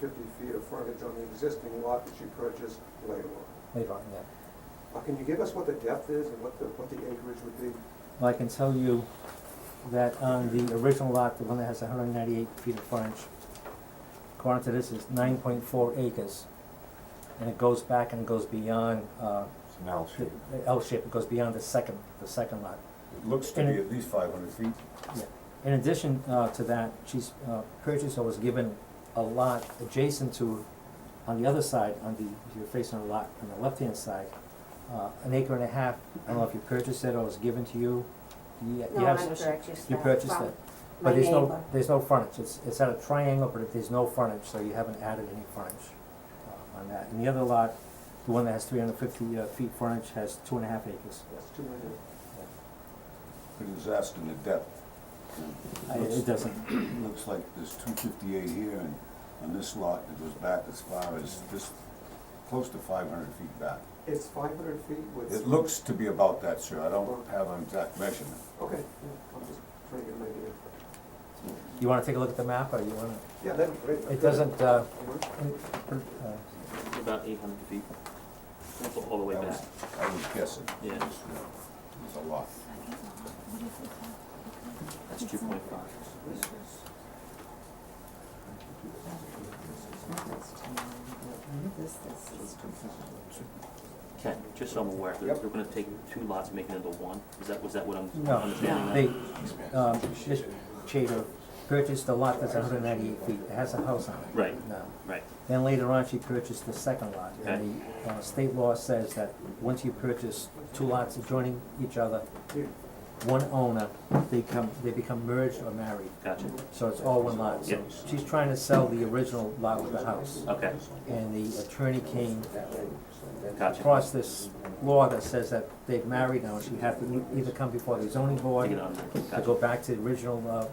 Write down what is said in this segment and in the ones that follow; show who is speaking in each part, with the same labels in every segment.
Speaker 1: fifty feet of frontage on the existing lot that you purchased later on.
Speaker 2: later on, yeah.
Speaker 1: Uh, Can you give us what the depth is and what the, what the acreage would be?
Speaker 2: Well, I can tell you that on the original lot, the one that has hundred and ninety-eight feet of frontage, according to this, is nine point four acres. And it goes back and goes beyond, uh,
Speaker 3: It's an L
Speaker 2: the
Speaker 3: shape.
Speaker 2: the L shape, it goes beyond the second, the second lot.
Speaker 3: It looks to be at least five hundred feet.
Speaker 2: In addition, uh, to that, she's, uh, purchased or was given a lot adjacent to, on the other side, on the, if you're facing a lot on the left-hand side, uh, an acre and a half, I don't know if you purchased it or was given to you, you, you have.
Speaker 4: No, I purchased
Speaker 2: You
Speaker 4: that
Speaker 2: purchased
Speaker 4: from
Speaker 2: it,
Speaker 4: my
Speaker 2: but there's
Speaker 4: neighbor.
Speaker 2: no, there's no frontage, it's, it's at a triangle, but there's no frontage, so you haven't added any frontage uh, on that. And the other lot, the one that has three hundred fifty uh, feet frontage, has two and a half acres.
Speaker 1: That's two hundred.
Speaker 3: It was asking the depth.
Speaker 2: I- It doesn't,
Speaker 3: It Looks like there's two fifty-eight here and on this lot, it goes back as far as this, close to five hundred feet back.
Speaker 1: It's five hundred feet with.
Speaker 3: It looks to be about that, sir. I don't have an exact measurement.
Speaker 1: Okay, yeah, I'm just trying to get an idea.
Speaker 2: you wanna take a look at the map, or you wanna,
Speaker 1: Yeah, that'd be great.
Speaker 2: it doesn't, uh,
Speaker 1: Work.
Speaker 2: it- uh,
Speaker 5: About eight hundred feet. That's all the way
Speaker 3: That
Speaker 5: back.
Speaker 3: was- I was guessing.
Speaker 5: Yeah.
Speaker 3: It was, uh, It was a lot.
Speaker 5: That's two point five. Ken, just so I'm aware, they're,
Speaker 3: Yep.
Speaker 5: they're gonna take two lots, making it into one. Is that, was that what I'm
Speaker 2: No.
Speaker 5: understanding?
Speaker 2: they, um, this Chater purchased the lot that's hundred ninety-eight feet, it has a house on it.
Speaker 5: Right,
Speaker 2: No.
Speaker 5: right.
Speaker 2: Then later on, she purchased the second lot, and the uh, state law says that once you purchase two lots adjoining each other,
Speaker 1: Yeah.
Speaker 2: one owner, they come, they become merged or married,
Speaker 5: Gotcha.
Speaker 3: Mm-hmm.
Speaker 2: so it's all one lot. So
Speaker 5: Yep.
Speaker 2: She's trying to sell the original lot with the house,
Speaker 5: Okay,
Speaker 2: and the attorney came
Speaker 5: gotcha.
Speaker 2: across this law that says that they've married now, and she had to e- either come before the zoning board
Speaker 5: Take it on there.
Speaker 2: to
Speaker 5: Gotcha.
Speaker 2: go back to the original uh,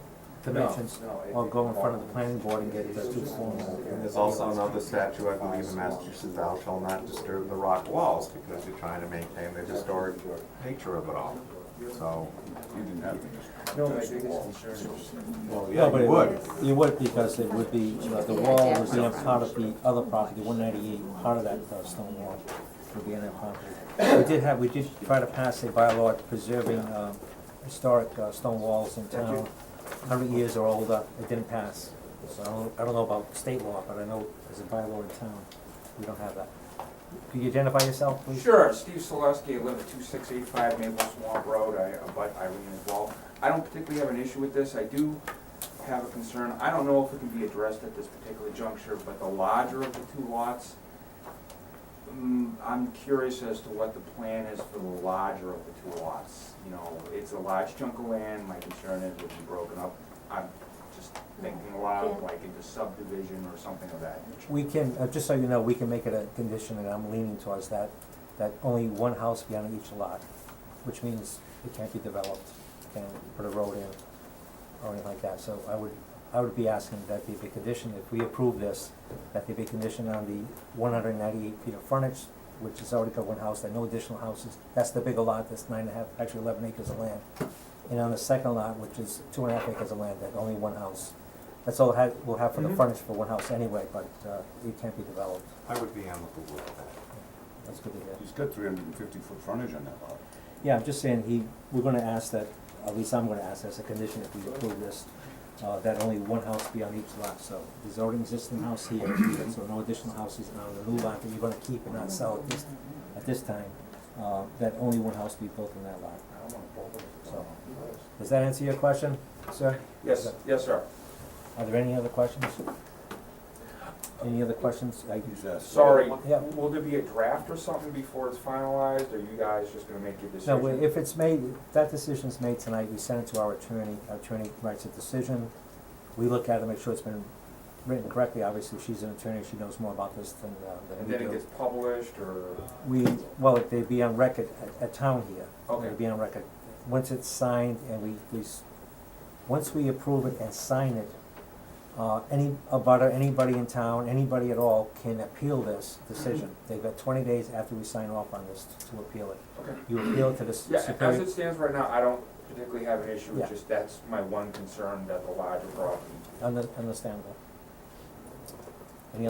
Speaker 2: dimensions, or go in front of the planning board and get the two forms.
Speaker 6: And there's also another statute, I believe, in Massachusetts, thou shall not disturb the rock walls, because you're trying to maintain the historic nature of it all. So,
Speaker 3: You didn't have to just.
Speaker 6: well,
Speaker 2: No,
Speaker 6: yeah,
Speaker 2: but
Speaker 6: you would.
Speaker 2: You would, because it would be, uh, the wall was then part of the other property, one ninety-eight, part of that uh, stone wall would be in that property. We did have, we did try to pass a bylaw preserving um, historic uh, stone walls in town, hundred years or older, it didn't pass. So I don't, I don't know about state law, but I know as a bylaw in town, we don't have that. Could you identify yourself, please?
Speaker 7: Sure, Steve Celestia, I live at two six eight five Maple Swamp Road, I abut Irene as well. I don't particularly have an issue with this, I do have a concern, I don't know if it can be addressed at this particular juncture, but the larger of the two lots, mm, I'm curious as to what the plan is for the larger of the two lots. You know, it's a large chunk of land, my concern is it'll be broken up, I'm just thinking aloud, like into subdivision or something of that nature.
Speaker 2: We can, uh, just so you know, we can make it a condition, and I'm leaning towards that, that only one house be on each lot, which means it can't be developed, can't put a road in or anything like that, so I would, I would be asking that they be conditioned, if we approve this, that they be conditioned on the one hundred ninety-eight feet of frontage, which has already got one house, there are no additional houses, that's the bigger lot, that's nine and a half, actually eleven acres of land. And on the second lot, which is two and a half acres of land, that only one house. That's all it had, we'll have for the
Speaker 7: Mhm.
Speaker 2: frontage for one house anyway, but, uh, it can't be developed,
Speaker 6: I would be amicable with that.
Speaker 2: that's good to hear.
Speaker 3: He's got three hundred and fifty foot frontage on that lot.
Speaker 2: Yeah, I'm just saying, he, we're gonna ask that, at least I'm gonna ask as a condition if we approve this, uh, that only one house be on each lot, so there's already existing house here, so no additional houses now, the new lot that you're gonna keep and not sell at this, at this time, uh, that only one house be built in that lot,
Speaker 7: I don't wanna bother with
Speaker 2: so. Does that answer your question, sir?
Speaker 7: Yes, yes, sir.
Speaker 2: Are there any other questions? Any other questions? I-
Speaker 3: He's asked.
Speaker 7: Sorry,
Speaker 2: Yeah.
Speaker 7: will there be a draft or something before it's finalized, or you guys just gonna make your
Speaker 2: No,
Speaker 7: decision?
Speaker 2: we- if it's made, if that decision's made tonight, we send it to our attorney, our attorney writes a decision. We look at it, make sure it's been written correctly, obviously, she's an attorney, she knows more about this than, uh, than
Speaker 7: And
Speaker 2: we do.
Speaker 7: then it gets published, or,
Speaker 2: We, well, they'd be on record at, at town here.
Speaker 7: Okay.
Speaker 2: They'd be on record. Once it's signed and we, we, s- once we approve it and sign it, uh, any, abutter, anybody in town, anybody at all can appeal this decision.
Speaker 7: Mm-hmm.
Speaker 2: They've got twenty days after we sign off on this to appeal it.
Speaker 7: okay.
Speaker 2: You appeal it to the s-
Speaker 7: Yeah,
Speaker 2: superior.
Speaker 7: as it stands right now, I don't particularly have an issue,
Speaker 2: Yeah.
Speaker 7: it's just that's my one concern, that the larger problem.
Speaker 2: Under- Understandable.